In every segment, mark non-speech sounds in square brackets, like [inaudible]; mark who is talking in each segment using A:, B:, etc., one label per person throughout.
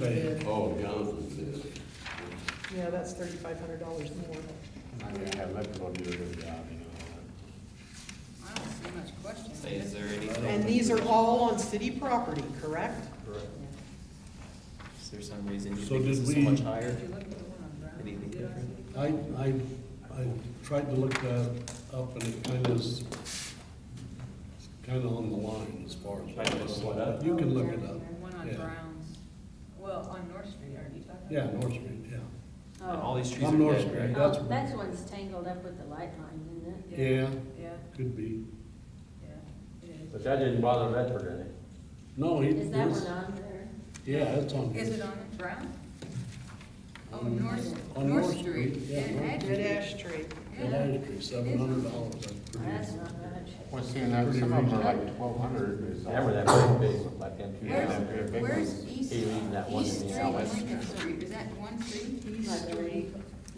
A: But
B: Oh, Johnson's is.
C: Yeah, that's thirty-five hundred dollars more.
D: I mean, I let people do a good job, you know.
E: I don't see much question.
F: Say, is there anything,
C: And these are all on city property, correct?
F: is there some reason you
A: So
F: think this
A: did
F: is so
A: we-
F: much higher?
E: If you look at the one on Brown,
F: Anything
E: did I
F: different?
E: see?
A: I, I, I tried to look that up and it kind of is, it's kind of on the line as far as.
D: Trying to look it up?
A: You can look it up.
E: And one on
A: yeah.
E: Brown's, well, on North Street, are you talking?
A: Yeah, North Street, yeah.
F: And all these trees
A: I'm
F: are
A: North
F: dead,
A: Street,
F: right?
A: that's,
G: Oh, that's one's tangled up with the light line, isn't it?
A: yeah,
E: Yeah,
A: could be.
E: yeah, it is.
D: But that didn't bother Medford any.
A: No, it
G: Is that
A: is,
G: one on there?
A: yeah, it's on.
E: Is it
A: here.
E: on Brown? Oh,
A: On-
E: North,
A: on
E: North Street.
A: yeah,
E: Dead
A: North
E: Ash.
A: Street.
C: Dead ash tree.
A: Dead
E: Yeah.
A: Ash Street, seven hundred dollars,
G: Oh,
A: that's
G: That's
A: pretty.
G: not much.
H: Well, seeing that some of them are like twelve hundred.
D: They were that big, big, like them two.
E: Where's,
D: down there, big
E: where's
D: ones.
E: East,
D: He leaving that one
E: East
D: in the
E: Street,
D: alley.
E: Lincoln Street, is that one street?
G: Like three.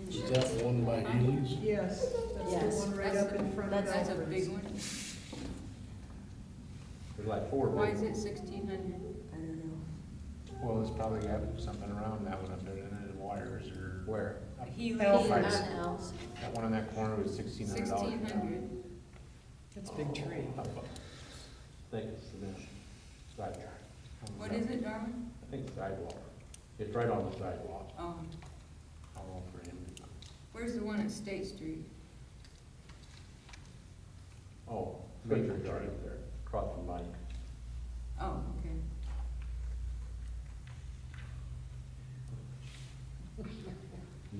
A: Is that the one by Healy's?
C: Yes, that's
G: Yes.
C: the one right
E: That's-
C: up in front of
E: That's a big
C: Albert's.
E: one.
D: There's like four big
E: Why is it
D: ones.
E: sixteen hundred?
G: I don't know.
H: Well, it's probably got something around that one up there, and wires or.
D: Where?
E: Healy.
G: He
H: Right.
G: and Al's.
H: That one in that corner was sixteen hundred dollars. Oh,
E: Sixteen hundred.
C: That's a big tree.
D: Think it's the sidewalk.
E: What is it, Darwin?
D: I think sidewalk. It's right on the sidewalk.
E: Oh,
D: I'll roll for him.
E: where's the one at State Street?
D: Oh, major garden there, across from Mike.
E: Oh, okay.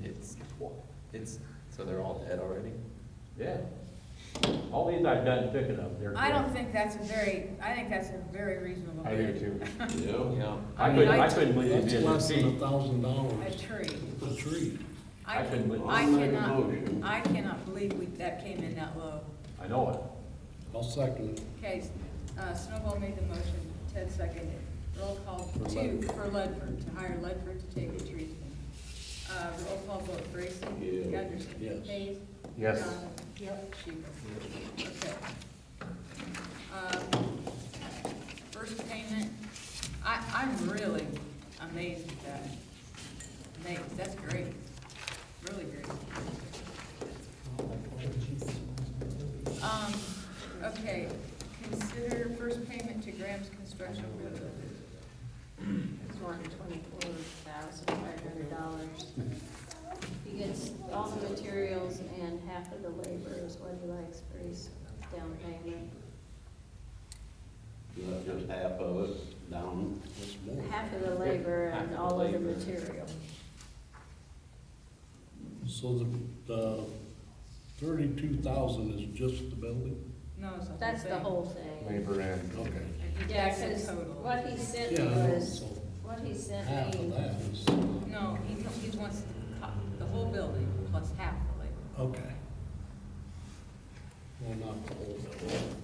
F: It's, it's, so they're all dead already?
D: Yeah. All these I've done picking up, they're.
E: I don't think that's a very, I think that's a very reasonable
H: I do
E: bid.
H: too.
B: Yeah.
F: Yeah.
D: I
E: I
D: couldn't,
E: mean, I-
D: I couldn't believe
A: That's
D: it
A: less
D: did.
A: than a
D: See,
A: thousand
E: [laughs] A
A: dollars
E: tree.
A: a tree.
D: I couldn't believe-
E: I
B: I'll make a
E: cannot,
B: motion.
E: I cannot believe we, that came in that low.
D: I know it.
A: I'll second it.
E: Okay, uh, Snowball made the motion, Ted seconded. Roll call
A: For
E: two
A: Ledford.
E: for Ledford, to hire Ledford to take the trees. Uh, roll call vote, Grayson?
B: Yeah.
E: Gunderson?
A: Yes.
E: Hayes?
H: Yes.
E: Donovan?
C: Yep.
E: Sheehan? Okay. Um, First payment, I, I'm really amazed at that. Amazed, that's great, really great. Um, okay, consider first payment to Graham's Construction for the,
G: It's one twenty-four thousand five hundred dollars. He gets all the materials and half of the labor is what he likes for his down payment.
B: You left just half of it down.
A: That's more.
G: Half of the labor
F: Half of
G: and
F: the
G: all of the
F: labor.
G: material.
A: So the, the thirty-two thousand is just the building?
E: no, it's the whole thing.
G: That's the whole thing.
H: Labor and.
A: Okay.
E: And he
G: Yeah,
E: takes
G: because
E: the total.
G: what he sent
A: Yeah,
G: me
A: I know.
G: was,
A: so
G: what he
A: half
G: sent
A: of
G: me,
A: that is,
E: No, he, co- he wants the, co- the whole building plus half the labor,
A: okay. Well, not the whole building.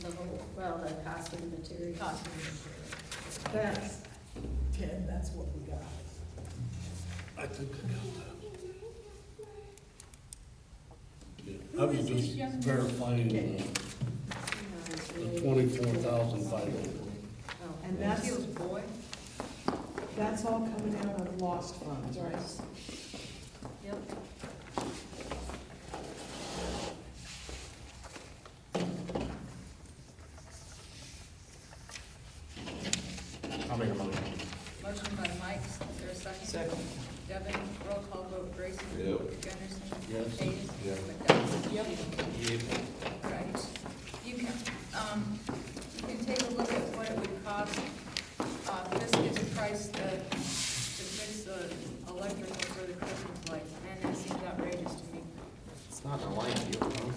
G: the whole, well, the cost of the material.
E: cost of the
C: That's, Ted, that's what we got.
A: I think I got that. Yeah,
E: Who
A: I was
E: is this
A: just
E: young man?
A: verifying the, the twenty-four thousand five hundred.
G: Oh,
C: And
E: material.
C: that's,
E: Feels boy,
C: that's all coming out of lost funds, right?
G: Yep.
H: I'll make a motion.
E: motion by Mike, is there a second?
C: Second.
E: Devin, roll call vote, Grayson?
B: Yep.
E: Gunderson?
A: Yes.
E: Hayes?
H: Yeah.
E: McDonald? Yep. Right. You can, um, you can take a look at what it would cost, uh, this is the price that, to fix the electrical for the Christmas lights, and that seems outrageous to me.
F: It's not a line deal, huh?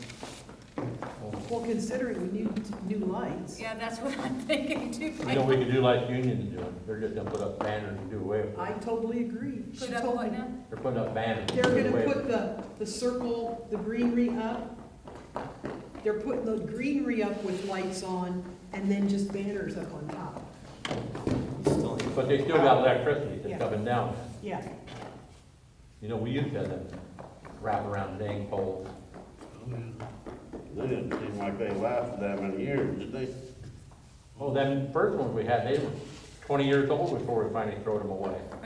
C: Well, considering we need new lights.
E: Yeah, that's what I'm [laughs] thinking too.
D: You know, we could do like Union's doing, they're just gonna put up banners and do away with
C: I
D: it.
C: totally agree. She
E: Put up
C: told
E: what
C: me-
E: now?
D: They're putting up banners. and
C: They're
D: do away
C: gonna
D: with
C: put the, the circle, the greenery up. They're putting the greenery up with lights on and then just banners up on top.
F: Still ain't-
D: it. But they still got electricity
C: Yeah.
D: that's coming down.
C: Yeah,
D: You know, we used to have them wrap around dang poles.
B: They didn't seem like they lasted that many years, did they?
D: Oh, them first ones we had, they were twenty years old before we finally throw them away.